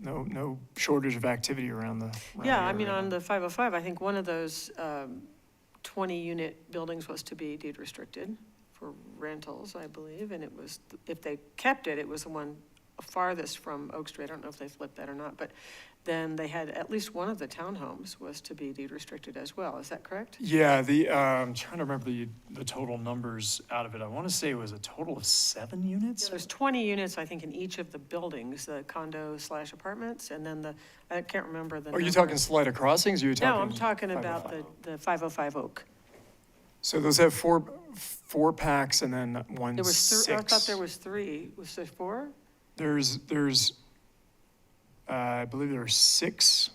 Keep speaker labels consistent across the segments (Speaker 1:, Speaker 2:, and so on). Speaker 1: no, no shortage of activity around the. around
Speaker 2: Yeah,
Speaker 1: the
Speaker 2: I mean,
Speaker 1: area.
Speaker 2: on the 505, I think one of those 20-unit buildings was to be deed restricted for rentals, I believe, and it was, if they kept it, it was the one farthest from Oak Street. I don't know if they flipped that or not, but then they had, at least one of the townhomes was to be deed restricted as well. Is that correct?
Speaker 1: Yeah, the, uh, I'm trying to remember the, the total numbers out of it. I want to say it was a total of seven units?
Speaker 2: There's 20 units, I think, in each of the buildings, the condo slash apartments, and then the, I can't remember the
Speaker 1: Are you
Speaker 2: number.
Speaker 1: talking Salida Crossings, or you're talking?
Speaker 2: No, I'm talking about
Speaker 1: 505?
Speaker 2: the the 505 Oak.
Speaker 1: So those have four, four packs and then one
Speaker 2: There was three, I thought
Speaker 1: six.
Speaker 2: there was three, was there four?
Speaker 1: There's, there's, uh, I believe there are six,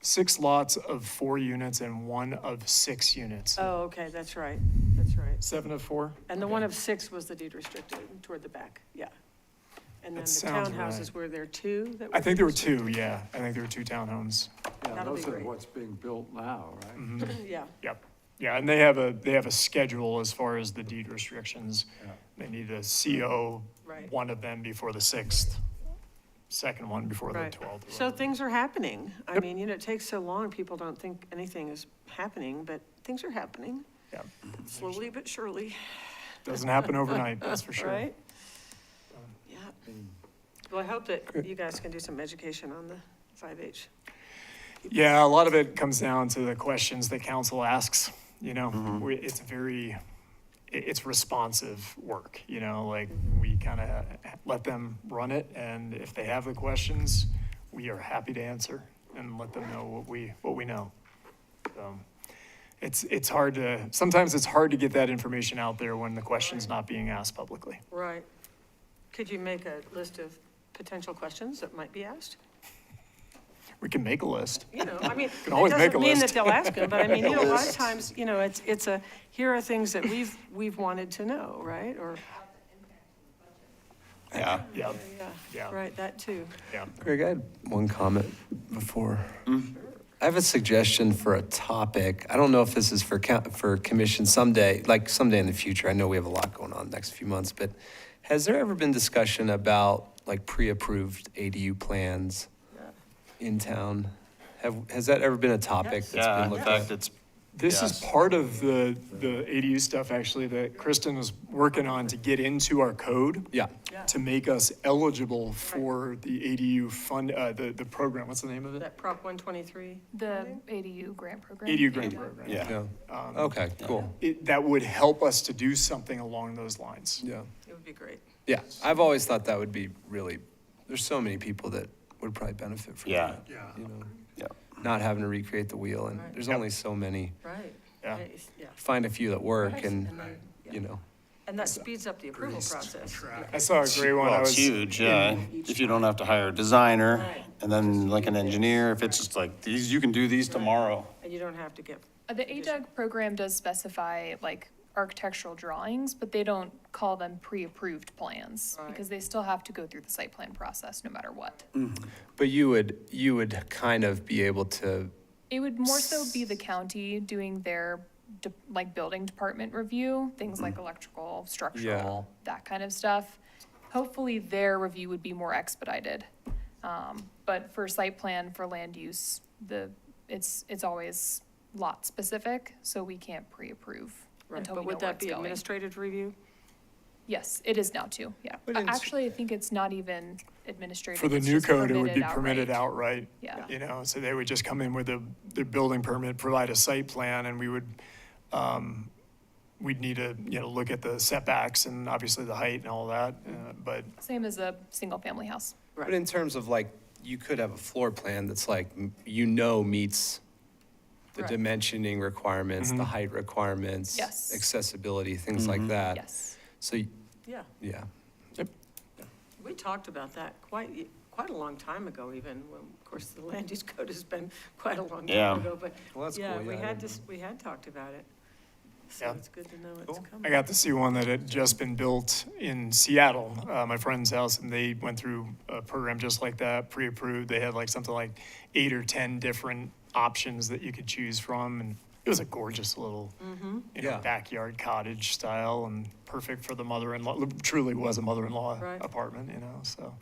Speaker 1: six lots of four units and one of six units.
Speaker 2: Oh, okay, that's right, that's right.
Speaker 1: Seven of four?
Speaker 2: And the one
Speaker 1: Okay.
Speaker 2: of six was the deed restricted toward the back, yeah. And then
Speaker 1: That
Speaker 2: the
Speaker 1: sounds
Speaker 2: townhouses, were there two that were?
Speaker 1: I think there were
Speaker 2: deed
Speaker 1: two, yeah. I think there were two townhomes.
Speaker 2: That'll
Speaker 3: Yeah,
Speaker 2: be
Speaker 3: those are
Speaker 2: great.
Speaker 3: what's being built now, right?
Speaker 2: restricted? Yeah,
Speaker 1: Yep. Yeah, and they have a, they have a schedule as far as the deed restrictions.
Speaker 3: Yeah.
Speaker 1: They need a CO,
Speaker 2: Right.
Speaker 1: one of them before the sixth, second one before the
Speaker 2: right.
Speaker 1: twelfth.
Speaker 2: So things are happening. I
Speaker 1: Yep.
Speaker 2: mean, you know, it takes so long, people don't think anything is happening, but things are happening
Speaker 1: Yeah,
Speaker 2: slowly but surely,
Speaker 1: doesn't happen overnight, that's for sure. Um,
Speaker 2: right? Yeah,
Speaker 3: Mm.
Speaker 2: well, I hope
Speaker 1: uh,
Speaker 2: that you guys can do some education on the 5H.
Speaker 1: Yeah, a lot of it comes down to the questions that council asks, you know? We- It's very, i- it's responsive work, you know, like, we kind of let them run it, and if they have the questions, we are happy to answer and let them know what we, what we know. So It's, it's hard to, sometimes it's hard to get that information out there when the question's not being asked publicly.
Speaker 2: Right. Could you make a list of potential questions that might be asked?
Speaker 1: We can make a list.
Speaker 2: You know, I mean, it
Speaker 1: Can always make a
Speaker 2: doesn't mean that
Speaker 1: list.
Speaker 2: they'll ask them, but I mean, you know, a lot of times, you know, it's, it's a, here are things that we've, we've wanted to know, right? Or,
Speaker 4: Yeah.
Speaker 1: Yeah,
Speaker 2: yeah,
Speaker 1: Yeah.
Speaker 2: right, that too.
Speaker 1: yeah.
Speaker 4: Greg, I had one comment before. Mm. I have a suggestion for a topic. I don't know if this is for, coun- for commission someday, like someday in the future. I know we have a lot going on next few months, but has there ever been discussion about like pre-approved ADU plans in town? Have, has that ever been a topic that's
Speaker 5: Yeah,
Speaker 4: been
Speaker 5: in
Speaker 4: looked at?
Speaker 5: fact, it's,
Speaker 1: This is
Speaker 5: Yes.
Speaker 1: part of the, the ADU stuff, actually, that Kristen was working on to get into our code.
Speaker 4: Yeah.
Speaker 2: Yeah.
Speaker 1: To make us eligible for the ADU fund, uh, the, the program, what's the name of it?
Speaker 2: That Prop 123,
Speaker 6: The ADU grant program?
Speaker 1: ADU grant program.
Speaker 5: yeah,
Speaker 4: No.
Speaker 5: Um,
Speaker 4: Okay, cool.
Speaker 1: It, that would help us to do something along those lines.
Speaker 4: Yeah.
Speaker 2: it would be great.
Speaker 4: Yeah. I've always thought that would be really, there's so many people that would probably benefit from
Speaker 5: Yeah.
Speaker 4: that. You know?
Speaker 5: yeah.
Speaker 4: not having to recreate the wheel, and
Speaker 2: Right.
Speaker 4: there's only so many.
Speaker 2: Right.
Speaker 1: Yeah.
Speaker 2: It's- Yeah.
Speaker 4: Find a few that work,
Speaker 2: Right.
Speaker 4: and
Speaker 2: And then-
Speaker 4: you know,
Speaker 2: And that speeds up the approval process.
Speaker 1: I saw a great one. I
Speaker 5: Well, it's
Speaker 1: was
Speaker 5: huge,
Speaker 1: in-
Speaker 5: yeah, if you don't have to hire a designer,
Speaker 2: Right.
Speaker 5: and then like an engineer, if it's just like, these, you can do these tomorrow.
Speaker 2: And you don't have to get,
Speaker 6: Uh, The ADUG program does specify like architectural drawings, but they don't call them pre-approved plans
Speaker 2: Right.
Speaker 6: because they still have to go through the site plan process no matter what.
Speaker 4: but you would you would kind of be able to.
Speaker 6: It would more so be the county doing their de- like building department review, things
Speaker 1: Mm-hmm.
Speaker 6: like electrical, structural, that kind of stuff. Hopefully their review would be more expedited. Um, but for site plan for land use, the, it's, it's always lot specific, so we can't pre-approve
Speaker 2: right,
Speaker 6: until
Speaker 2: but
Speaker 6: we know where
Speaker 2: would that
Speaker 6: it's
Speaker 2: be
Speaker 6: going.
Speaker 2: administrative review?
Speaker 6: Yes, it is now too, yeah.
Speaker 4: But
Speaker 6: Uh,
Speaker 4: it's-
Speaker 6: Actually, I think it's not even administrative.
Speaker 1: For the
Speaker 6: it's
Speaker 1: new
Speaker 6: just
Speaker 1: code, it would be
Speaker 6: outright.
Speaker 1: permitted outright.
Speaker 6: Yeah.
Speaker 1: You know, so they would just come in with a, their building permit, provide a site plan, and we would, um, we'd need to, you know, look at the setbacks and obviously the height and all that, uh, but
Speaker 6: Same as a single-family house.
Speaker 4: But in terms of like, you could have a floor plan that's like m- you know meets the
Speaker 2: Right.
Speaker 4: dimensioning requirements, the height requirements,
Speaker 6: Yes.
Speaker 4: accessibility, things
Speaker 5: Mm-hmm.
Speaker 4: like that.
Speaker 6: Yes.
Speaker 4: So y-
Speaker 2: Yeah.
Speaker 4: yeah,
Speaker 2: We talked about that quite, quite a long time ago even, when, of course, the land use code has been quite a long
Speaker 5: Yeah.
Speaker 2: time ago, but.
Speaker 4: Well, that's
Speaker 2: Yeah,
Speaker 4: cool,
Speaker 2: we
Speaker 4: yeah, I
Speaker 2: had
Speaker 4: didn't
Speaker 2: this, we had talked about it. So
Speaker 1: Yeah.
Speaker 2: it's good to know it's
Speaker 1: I
Speaker 2: coming.
Speaker 1: got to see one that had just been built in Seattle, uh, my friend's house, and they went through a program just like that, pre-approved. They had like something like eight or 10 different options that you could choose from, and it was a gorgeous little, you know,
Speaker 4: Yeah.
Speaker 1: backyard cottage style and perfect for the mother-in-law. Truly was a mother-in-law
Speaker 2: Right.
Speaker 1: apartment, you know, so.